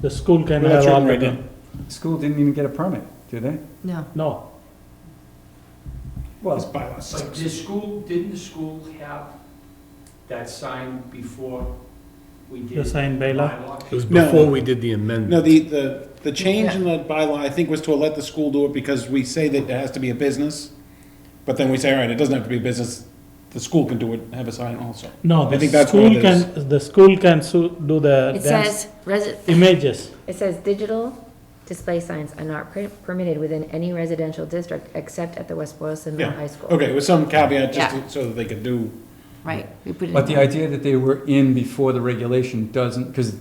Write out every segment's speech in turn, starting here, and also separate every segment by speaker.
Speaker 1: The school can
Speaker 2: Well, that's
Speaker 1: have
Speaker 2: written right
Speaker 1: already,
Speaker 3: School didn't even get a permit, did they?
Speaker 4: Mm-hmm.
Speaker 5: No,
Speaker 1: no,
Speaker 2: It's
Speaker 3: Well,
Speaker 2: bylaw
Speaker 6: But
Speaker 2: six.
Speaker 6: the school, didn't the school have that sign before we did?
Speaker 1: the sign bylaw.
Speaker 6: bylaw?
Speaker 4: It was
Speaker 2: No.
Speaker 4: before we did the amendment.
Speaker 2: No, the, the, the change in the bylaw, I think, was to let the school do it because we say that it has to be a business. But then we say, all right, it doesn't have to be a business, the school can do it, have a sign also.
Speaker 1: No,
Speaker 2: I
Speaker 1: the
Speaker 2: think that's what
Speaker 1: school
Speaker 2: it is.
Speaker 1: can, the school can su- do the
Speaker 7: It
Speaker 1: dance
Speaker 7: says, resi-
Speaker 1: images.
Speaker 7: it says digital display signs are not per- permitted within any residential district except at the West Boylston Middle High
Speaker 2: Yeah,
Speaker 7: School.
Speaker 2: okay, with some caveat, just
Speaker 5: Yeah.
Speaker 2: to- so that they could do,
Speaker 5: right, we put it
Speaker 3: but the
Speaker 5: in,
Speaker 3: idea that they were in before the regulation doesn't, because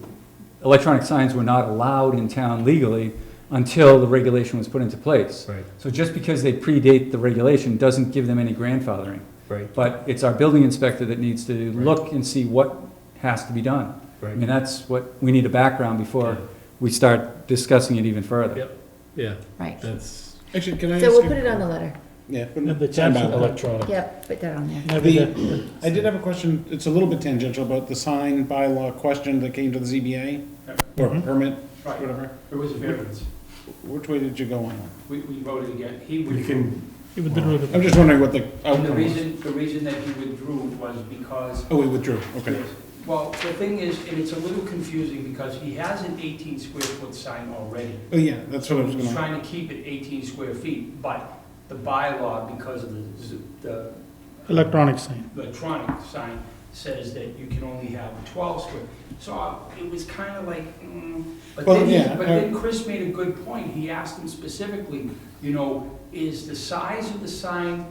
Speaker 3: electronic signs were not allowed in town legally until the regulation was put into place.
Speaker 4: Right,
Speaker 3: So just because they predate the regulation doesn't give them any grandfathering.
Speaker 4: right,
Speaker 3: But it's our building inspector that needs to
Speaker 4: Right.
Speaker 3: look and see what has to be done. I mean,
Speaker 4: right.
Speaker 3: that's what, we need a background before we start discussing it even further.
Speaker 4: Yep. Yeah,
Speaker 5: right.
Speaker 4: that's,
Speaker 2: actually, can I ask?
Speaker 7: So we'll
Speaker 2: you-
Speaker 7: put it on the letter.
Speaker 2: Yeah. put it-
Speaker 1: The chance
Speaker 2: bylaw.
Speaker 1: of electronic.
Speaker 7: Yep, put that on there.
Speaker 1: Maybe
Speaker 2: The-
Speaker 1: the-
Speaker 2: I did have a question, it's a little bit tangential, about the sign bylaw question that came to the ZBA,
Speaker 4: Mm-hmm.
Speaker 2: or
Speaker 1: Mhm.
Speaker 2: permit,
Speaker 6: Right,
Speaker 2: whatever.
Speaker 6: it was a variance.
Speaker 2: Which way did you go on
Speaker 6: We, we voted again. He
Speaker 4: you
Speaker 6: withdrew.
Speaker 4: can,
Speaker 1: he withdrew
Speaker 2: that? I'm
Speaker 1: the-
Speaker 2: just wondering what the
Speaker 6: And the
Speaker 2: outcome was.
Speaker 6: reason, the reason that he withdrew was because
Speaker 2: Oh, we withdrew, okay.
Speaker 6: Yes. Well, the thing is, and it's a little confusing because he has an 18 square foot sign already.
Speaker 2: Oh, yeah, that's what I was
Speaker 6: He's
Speaker 2: gonna,
Speaker 6: trying to keep it 18 square feet, but the bylaw, because of the z- the
Speaker 1: electronic sign.
Speaker 6: electronic sign, says that you can only have 12 square. So uh, it was kind of like, mm. But
Speaker 2: Well,
Speaker 6: then, he-
Speaker 2: yeah, uh,
Speaker 6: but
Speaker 2: I-
Speaker 6: then Chris made a good point. He asked him specifically, you know, is the size of the sign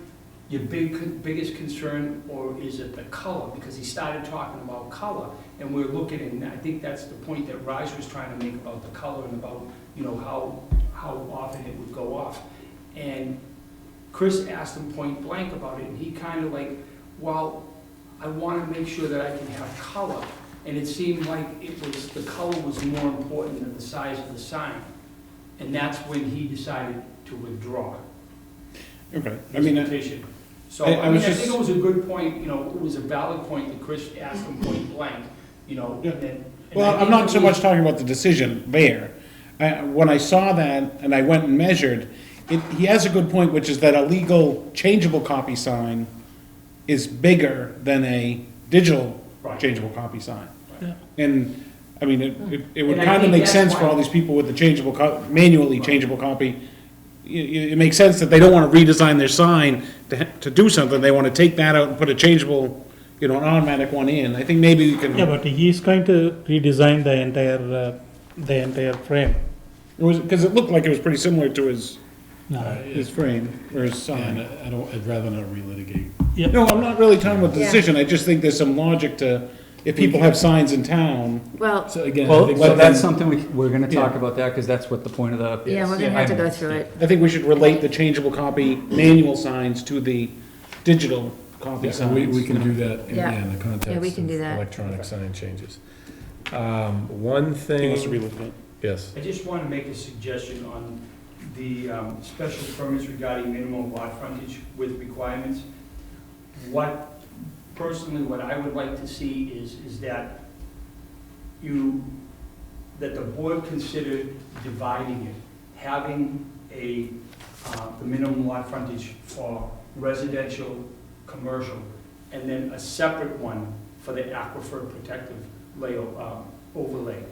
Speaker 6: your big, biggest concern, or is it the color? Because he started talking about color, and we're looking, and I think that's the point that Raj was trying to make about the color and about, you know, how, how often it would go off. And Chris asked him point blank about it, and he kind of like, well, I want to make sure that I can have color. And it seemed like it was, the color was more important than the size of the sign. And that's when he decided to withdraw
Speaker 2: okay, I
Speaker 6: his
Speaker 2: mean, I-
Speaker 6: petition. So,
Speaker 2: I- I
Speaker 6: I mean,
Speaker 2: was
Speaker 6: I
Speaker 2: just-
Speaker 6: think it was a good point, you know, it was a valid point that Chris asked him point blank, you know,
Speaker 2: Yeah.
Speaker 6: and then. and I
Speaker 2: uh, well, I'm
Speaker 6: think
Speaker 2: not
Speaker 6: it
Speaker 2: so
Speaker 6: was-
Speaker 2: much talking about the decision there. I, when I saw that and I went and measured, it, he has a good point, which is that a legal changeable copy sign is bigger than a digital
Speaker 6: Right.
Speaker 2: changeable copy sign.
Speaker 1: Yeah.
Speaker 2: And, I mean, it, it- it would
Speaker 6: And I
Speaker 2: kind of
Speaker 6: think
Speaker 2: make
Speaker 6: that's
Speaker 2: sense for
Speaker 6: why-
Speaker 2: all these people with the changeable co, manually
Speaker 6: Right.
Speaker 2: changeable copy. It, it makes sense that they don't want to redesign their sign to, ha- to do something, they want to take that out and put a changeable, you know, an automatic one in. I think maybe we can.
Speaker 1: Yeah, but he is going to redesign the entire, uh, the entire frame.
Speaker 2: It was, because it looked like it was pretty similar to his, uh,
Speaker 1: No.
Speaker 2: his frame, or his sign.
Speaker 4: and I don't, I'd rather not relitigate.
Speaker 1: Yep,
Speaker 2: No, I'm not really talking about the
Speaker 7: Yeah.
Speaker 2: decision, I just think there's some logic to, if people have signs in town,
Speaker 7: Well,
Speaker 4: So again, I
Speaker 3: Well,
Speaker 4: think
Speaker 3: so
Speaker 2: let
Speaker 3: that's
Speaker 2: them-
Speaker 3: something we, we're gonna talk
Speaker 2: Yeah.
Speaker 3: about that, because that's what the point of the.
Speaker 7: yeah, we're gonna have to go through it.
Speaker 2: I think we should relate the changeable copy manual signs to the digital copy
Speaker 4: Yeah, we, we
Speaker 2: signs.
Speaker 4: can do that, in-
Speaker 7: Yeah.
Speaker 4: yeah, in the context
Speaker 7: Yeah, we can
Speaker 4: of
Speaker 7: do that.
Speaker 4: Electronic sign changes. Um, one
Speaker 2: He wants to
Speaker 4: thing,
Speaker 2: relook at it.
Speaker 4: yes,
Speaker 6: I just want to make a suggestion on the um, special permits regarding minimum lot frontage with requirements. What, personally, what I would like to see is, is that you, that the board consider dividing it, having a, uh, the minimum lot frontage for residential, commercial, and then a separate one for the aquifer protective layout, um, overlay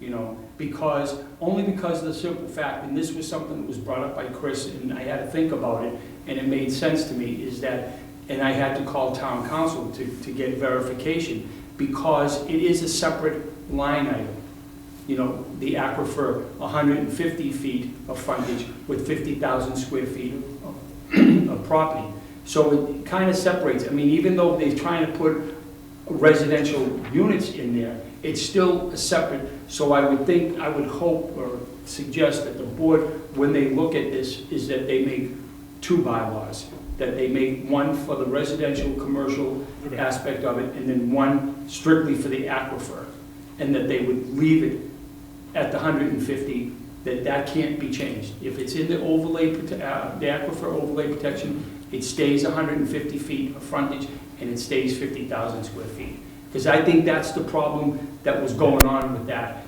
Speaker 6: you know, because, only because of the simple fact, and this was something that was brought up by Chris, and I had to think about it, and it made sense to me, is that, and I had to call town council to, to get verification, because it is a separate line item. You know, the aquifer, hundred and fifty feet of frontage with fifty thousand square feet of- of property. So it kind of separates, I mean, even though they're trying to put residential units in there, it's still a separate, so I would think, I would hope or suggest that the board, when they look at this, is that they make two bylaws, that they make one for the residential, commercial
Speaker 2: Okay.
Speaker 6: aspect of it, and then one strictly for the aquifer, and that they would leave it at the 150, that that can't be changed. If it's in the overlay, prote- uh, the aquifer overlay protection, it stays 150 feet of frontage, and it stays 50,000 square feet. Because I think that's the problem that was going on with that.